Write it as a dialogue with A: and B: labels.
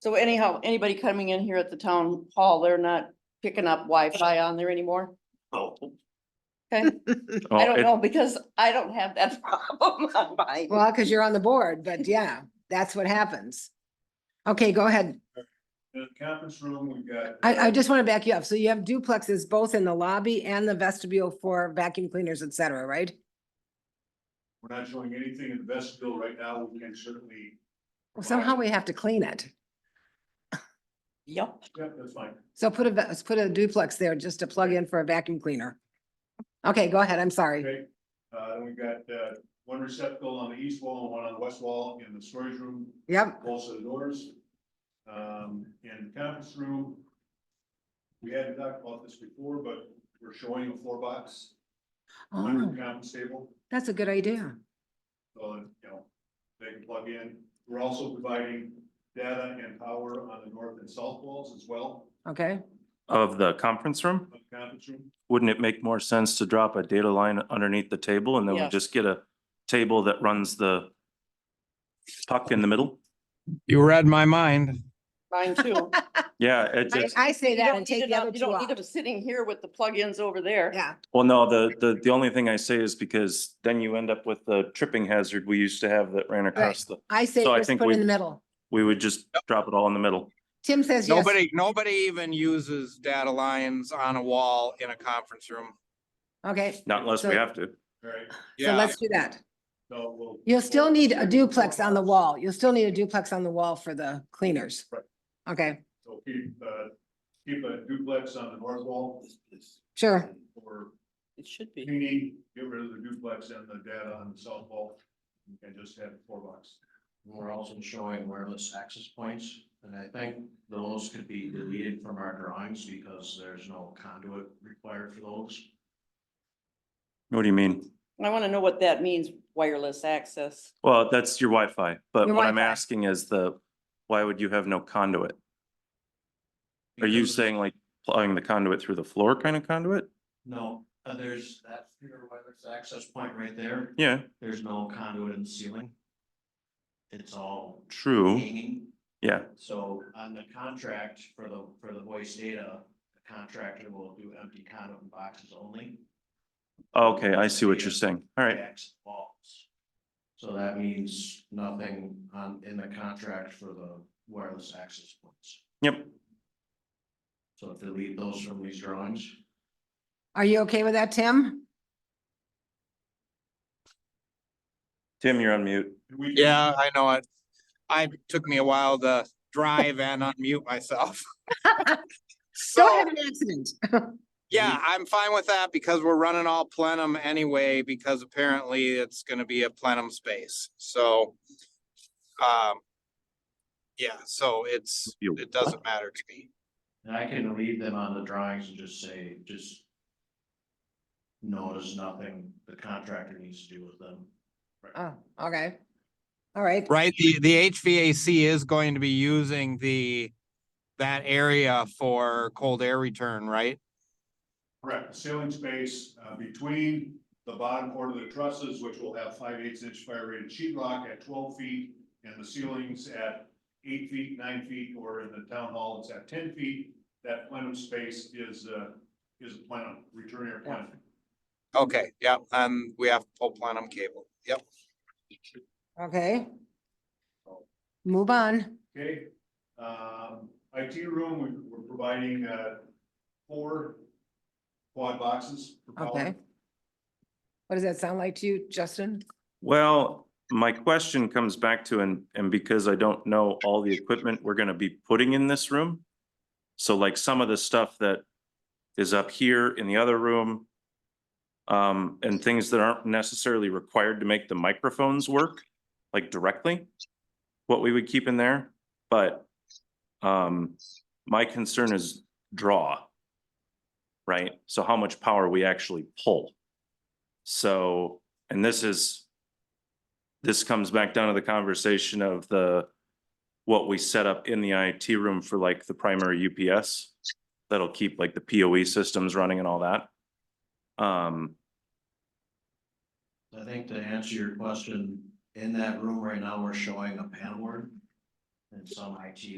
A: So anyhow, anybody coming in here at the town hall, they're not picking up Wi-Fi on there anymore?
B: Oh,
A: I
C: Oh,
A: don't
C: it-
A: know, because I don't have that problem on mine.
D: Well, because you're on the board, but yeah, that's what happens. Okay, go ahead.
E: The conference room, we've got. uh,
D: I, I just want to back you up. So you have duplexes both in the lobby and the vestibule for vacuum cleaners, et cetera, right?
E: We're not showing anything in the vestibule right now. We can certainly,
D: Well, Somehow we have to clean it.
A: Yep,
E: yeah, that's fine.
D: So put a, va- let's put a duplex there just to plug in for a vacuum cleaner. Okay, go ahead. I'm sorry.
E: Okay, uh, then we've got, uh, one receptacle on the east wall and one on the west wall in the storage room,
D: Yep,
E: both of the doors. Um, in the conference room. We hadn't talked about this before, but we're showing a floor box under
D: oh,
E: the conference table.
D: that's a good idea.
E: So, you know, they can plug in. We're also providing data and power on the north and south walls as well,
D: Okay,
C: of the conference room,
E: of the conference room.
C: wouldn't it make more sense to drop a data line underneath the table and then we
A: Yeah.
C: just get a table that runs the puck in the middle?
F: You read my mind.
A: mine too.
C: Yeah, it
D: I,
C: just,
D: I say
A: You
D: that
A: don't
D: and
A: need
D: take
A: it
D: the
A: out-
D: other
A: You
D: two
A: don't need
D: off.
A: them sitting here with the plugins over there.
D: Yeah,
C: well, no, the, the, the only thing I say is because then you end up with the tripping hazard we used to have that ran across the,
D: I say
C: So I
D: just
C: think
D: put it in
C: we-
D: the middle.
C: we would just drop it all in the middle.
D: Tim says yes.
F: Nobody, nobody even uses data lines on a wall in a conference room.
D: Okay,
C: Not unless we
D: So-
C: have to.
E: All right,
D: so
F: Yeah,
D: let's do that.
E: so we'll.
D: You'll still need a duplex on the wall. You'll still need a duplex on the wall for the cleaners.
E: Right.
D: Okay,
E: So keep, uh, keep a duplex on the north wall.
D: sure.
E: For
A: It should be.
E: cleaning, get rid of the duplex and the data on the south wall, and just have a floor box.
B: We're also showing wireless access points, and I think those could be deleted from our drawings because there's no conduit required for those.
C: What do you mean?
A: I want to know what that means, wireless access.
C: Well, that's your Wi-Fi, but
D: Your
C: what I'm
D: Wi-Fi.
C: asking is the, why would you have no conduit? Are you
B: Because-
C: saying like plowing the conduit through the floor kind of conduit?
B: No, uh, there's, that's your wireless access point right there.
C: Yeah,
B: There's no conduit in the ceiling. It's all
C: true,
B: hanging.
C: yeah.
B: So on the contract for the, for the voice data, the contractor will do empty conduit boxes only.
C: Okay, I see what you're
B: Yeah.
C: saying. All right,
B: Backs and walls. So that means nothing on, in the contract for the wireless access points.
C: yep,
B: So delete those from these drawings.
D: Are you okay with that, Tim?
C: Tim, you're on mute.
E: And we-
F: yeah, I know it. I, took me a while to drive and unmute myself.
D: Don't
F: So,
D: have an accident.
F: yeah, I'm fine with that because we're running all plenum anyway, because apparently it's gonna be a plenum space, so. Um. Yeah, so it's,
C: You-
F: it doesn't matter to me.
B: And I can leave them on the drawings and just say, just. Notice nothing the contractor needs to do with them.
D: Oh, okay. All right,
F: Right, the, the HVAC is going to be using the, that area for cold air return, right?
E: Correct, The ceiling space, uh, between the bottom part of the trusses, which will have five eighths inch fire rated sheet rock at twelve feet. And the ceilings at eight feet, nine feet, or in the town hall, it's at ten feet. That plenum space is, uh, is a plenum, return air plenum.
F: Okay, yeah, um, we have full plenum cable, yep.
D: okay. Move on.
E: Okay, um, IT room, we- we're providing, uh, four quad boxes. for power.
D: Okay. What does that sound like to you, Justin?
C: Well, my question comes back to, and, and because I don't know all the equipment we're gonna be putting in this room. So like some of the stuff that is up here in the other room. Um, and things that aren't necessarily required to make the microphones work, like directly. What we would keep in there, but, um, my concern is draw. Right? So how much power we actually pull. So, and this is this comes back down to the conversation of the, what we set up in the IT room for like the primary UPS. That'll keep like the POE systems running and all that. Um,
B: I think to answer your question, in that room right now, we're showing a panel board. And some IT